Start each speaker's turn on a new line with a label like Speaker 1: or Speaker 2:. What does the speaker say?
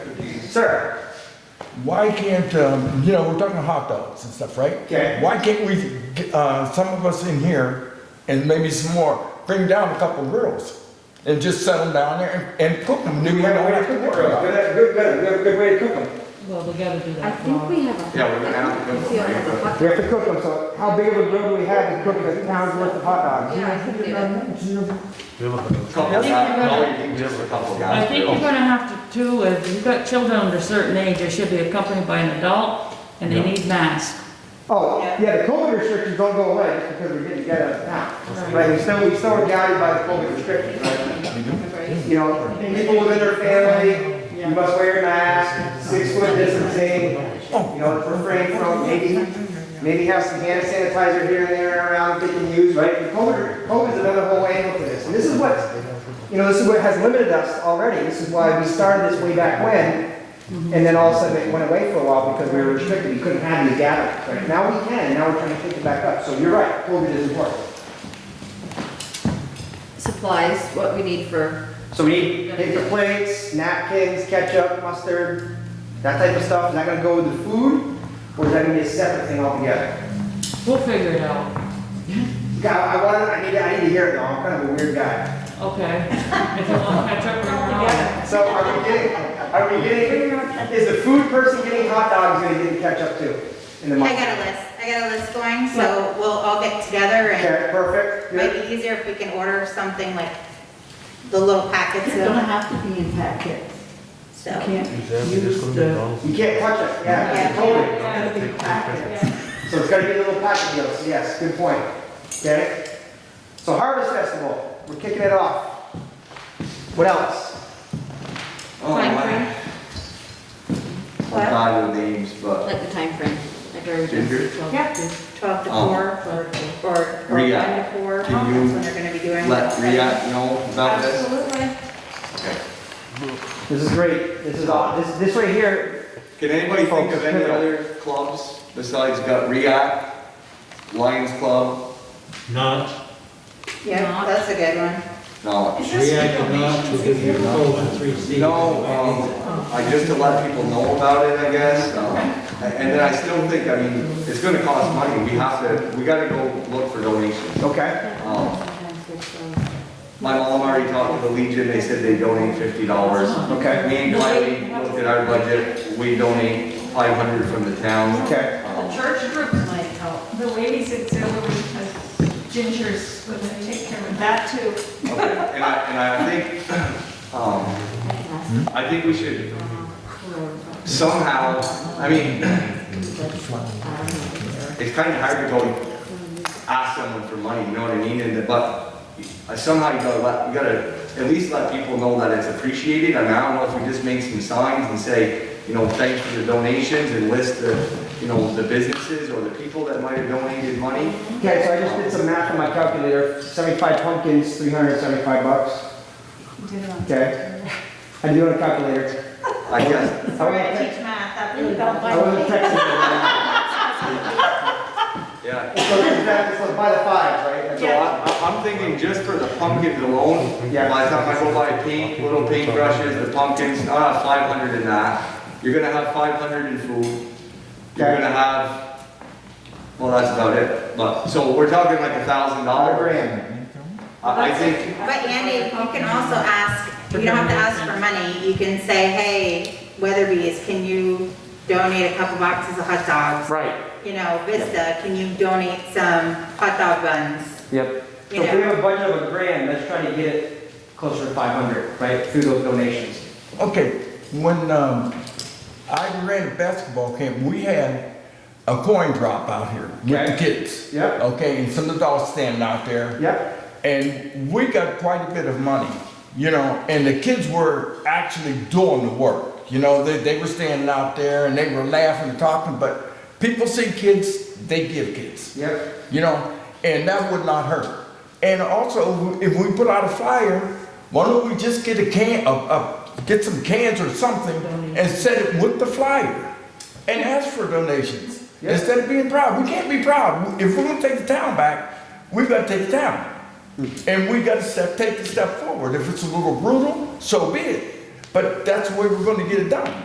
Speaker 1: Sir,
Speaker 2: Why can't, um, you know, we're talking hot dogs and stuff, right?
Speaker 1: Okay.
Speaker 2: Why can't we, get, uh, some of us in here, and maybe some more, bring down a couple grills? And just set them down there and, and cook them,
Speaker 1: do
Speaker 2: then
Speaker 1: we
Speaker 2: we
Speaker 1: have a
Speaker 2: don't
Speaker 1: way to
Speaker 2: have to
Speaker 1: cook
Speaker 2: worry
Speaker 1: them?
Speaker 2: about
Speaker 1: Good,
Speaker 2: it.
Speaker 1: good, good, we have a good way to cook them.
Speaker 3: Well, we gotta do
Speaker 4: I
Speaker 3: that.
Speaker 4: think we have a.
Speaker 5: Yeah, we're gonna have to
Speaker 4: I
Speaker 5: go
Speaker 4: feel
Speaker 5: for
Speaker 4: like a
Speaker 5: it.
Speaker 4: hot-
Speaker 1: We have to cook them, so how big of a grill do we have to cook a pound's worth of hot dogs?
Speaker 4: Yeah, I can do that.
Speaker 5: Couple
Speaker 3: I think you're
Speaker 5: guys,
Speaker 3: gonna-
Speaker 5: all you can do is a couple
Speaker 3: I
Speaker 5: guys.
Speaker 3: think you're gonna have to, too, if you've got children under a certain age, they should be accompanied by an adult, and they need masks.
Speaker 1: Oh, yeah, the COVID restrictions don't go away just because we're getting together as a town. Right, we still, we still are guided by the COVID restrictions, right? You know, people within their family, you must wear a mask, six foot distancing, you know, refrain from maybe, maybe have some hand sanitizer here and there around that they can use, right? And COVID, COVID's another whole angle to this, and this is what, you know, this is what has limited us already. This is why we started this way back when, and then all of a sudden it went away for a while because we were restricted, we couldn't have these gatherings. Right Now we can, now we're trying to pick it back up, so you're right, COVID is important.
Speaker 4: Supplies, what we need for,
Speaker 1: So we need paper plates, napkins, ketchup, mustard, that type of stuff, is that gonna go with the food? Or is that gonna be a separate thing altogether?
Speaker 3: We'll figure it out,
Speaker 1: God, I wanted, I need, I need to hear it though, I'm kind of a weird guy.
Speaker 3: okay? If you want to catch up, bring it on.
Speaker 1: So are we getting, are we getting, is the food person getting hot dogs gonna get the ketchup too? In the
Speaker 6: I
Speaker 1: month?
Speaker 6: got a list, I got a list going, so we'll all get together and
Speaker 1: Okay, perfect,
Speaker 6: it
Speaker 1: good.
Speaker 6: might be easier if we can order something like the little packets
Speaker 7: It don't
Speaker 6: of,
Speaker 7: have to be in packets.
Speaker 6: so.
Speaker 7: You can't use the.
Speaker 1: You can't touch it, yeah, it's totally.
Speaker 7: Gotta be packets.
Speaker 1: So it's gotta be a little package deal, so yes, good point, okay? So Harvest Festival, we're kicking it off. What else?
Speaker 5: Oh, my.
Speaker 6: What?
Speaker 5: Not the names, but
Speaker 4: like the timeframe, like our.
Speaker 5: Ginger?
Speaker 6: Yeah, twelve to
Speaker 5: Oh.
Speaker 6: four, or, or or one
Speaker 5: Rhea,
Speaker 6: to four,
Speaker 5: can you
Speaker 6: that's when they're gonna be doing.
Speaker 5: let
Speaker 6: it.
Speaker 5: Riyadh know about this.
Speaker 6: Absolutely.
Speaker 1: This is great, this is all, this, this right here,
Speaker 5: Can anybody think of any other clubs besides got React, Lions Club?
Speaker 8: not,
Speaker 6: Yeah, that's a good one.
Speaker 5: No,
Speaker 8: react not to give you cold and three seasons.
Speaker 5: no, um, I just to let people know about it, I guess. um, And then I still think, I mean, it's gonna cost money. We have to, we gotta go look for donations.
Speaker 1: okay,
Speaker 5: Um, My mom already talked to the Legion, they said they donate fifty dollars.
Speaker 1: Okay.
Speaker 5: Me and Kylie looked at our budget, we donate five hundred from the town.
Speaker 1: okay.
Speaker 5: Um,
Speaker 7: Church groups might help.
Speaker 9: The ladies auxiliary has Ginger's, when they take care of that too.
Speaker 5: Okay, and I, and I think, um, I think we should somehow, I mean, it's kind of hard to go ask someone for money, you know what I mean? And, but somehow you gotta let, you gotta at least let people know that it's appreciated. I mean, I don't know if we just make some signs and say, you know, thanks for the donations and list the, you know, the businesses or the people that might have donated money.
Speaker 1: Okay, so I just did some math on my calculator, seventy-five pumpkins, three hundred and seventy-five bucks,
Speaker 9: You did it on-
Speaker 1: okay? I do on a calculator.
Speaker 5: I guess,
Speaker 1: I
Speaker 9: Sorry, I
Speaker 1: wasn't
Speaker 9: teach math, that really don't
Speaker 1: I wasn't
Speaker 9: like.
Speaker 1: texting.
Speaker 5: yeah.
Speaker 1: So that's, so by the fives, right? That's a
Speaker 5: So
Speaker 1: lot.
Speaker 5: I, I- I'm thinking just for the pumpkins alone, yeah, by the time I go buy paint, little paintbrushes, the pumpkins, I'll have five hundred in that. You're gonna have five hundred in food. You're
Speaker 1: Okay.
Speaker 5: gonna have, well, that's about it, but, so we're talking like a thousand
Speaker 1: Not a
Speaker 5: dollars.
Speaker 1: grand.
Speaker 5: I, I think,
Speaker 6: But Andy, you can also ask, you don't have to ask for money, you can say, hey, Weatherby's, can you donate a couple boxes of hot dogs?
Speaker 1: Right,
Speaker 6: You know, Vista, can you donate some hot dog buns?
Speaker 1: yep. So
Speaker 6: You
Speaker 1: if we
Speaker 6: know,
Speaker 1: have a budget of a grand, let's try to get it closer to five hundred, right, through those donations.
Speaker 2: Okay, when, um, I ran a basketball camp, we had a coin drop out here with the
Speaker 1: Okay.
Speaker 2: kids.
Speaker 1: Yep.
Speaker 2: Okay, and some adults standing out there.
Speaker 1: Yep.
Speaker 2: And we got quite a bit of money, you know, and the kids were actually doing the work. You know, they, they were standing out there and they were laughing and talking, but people see kids, they give kids,
Speaker 1: Yep.
Speaker 2: you know, and that would not hurt. And also, if we put out a flyer, why don't we just get a can, uh, uh, get some cans or something and set it with the flyer and ask for donations
Speaker 1: Yeah.
Speaker 2: instead of being proud. We can't be proud. If we're gonna take the town back, we've got to take the town. And we got to step, take the step forward. If it's a little brutal, so be it. But that's the way we're going to get it done.